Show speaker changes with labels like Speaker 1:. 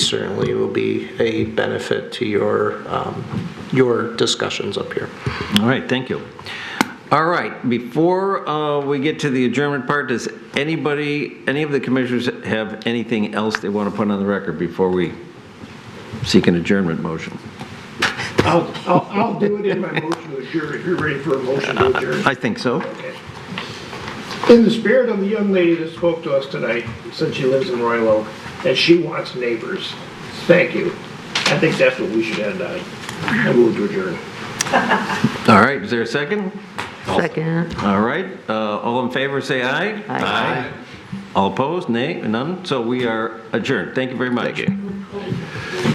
Speaker 1: certainly will be a benefit to your, um, your discussions up here.
Speaker 2: All right, thank you. All right, before uh, we get to the adjournment part, does anybody, any of the commissioners have anything else they want to put on the record before we seek an adjournment motion?
Speaker 3: I'll, I'll, I'll do it in my motion to adjourn, if you're ready for a motion to adjourn.
Speaker 2: I think so.
Speaker 3: In the spirit of the young lady that spoke to us tonight, since she lives in Royal Oak, that she wants neighbors, thank you. I think that's what we should end on. I move to adjourn.
Speaker 2: All right, is there a second?
Speaker 4: Second.
Speaker 2: All right, uh, all in favor, say aye.
Speaker 4: Aye.
Speaker 2: All opposed, nay, none, so we are adjourned. Thank you very much. Thank you.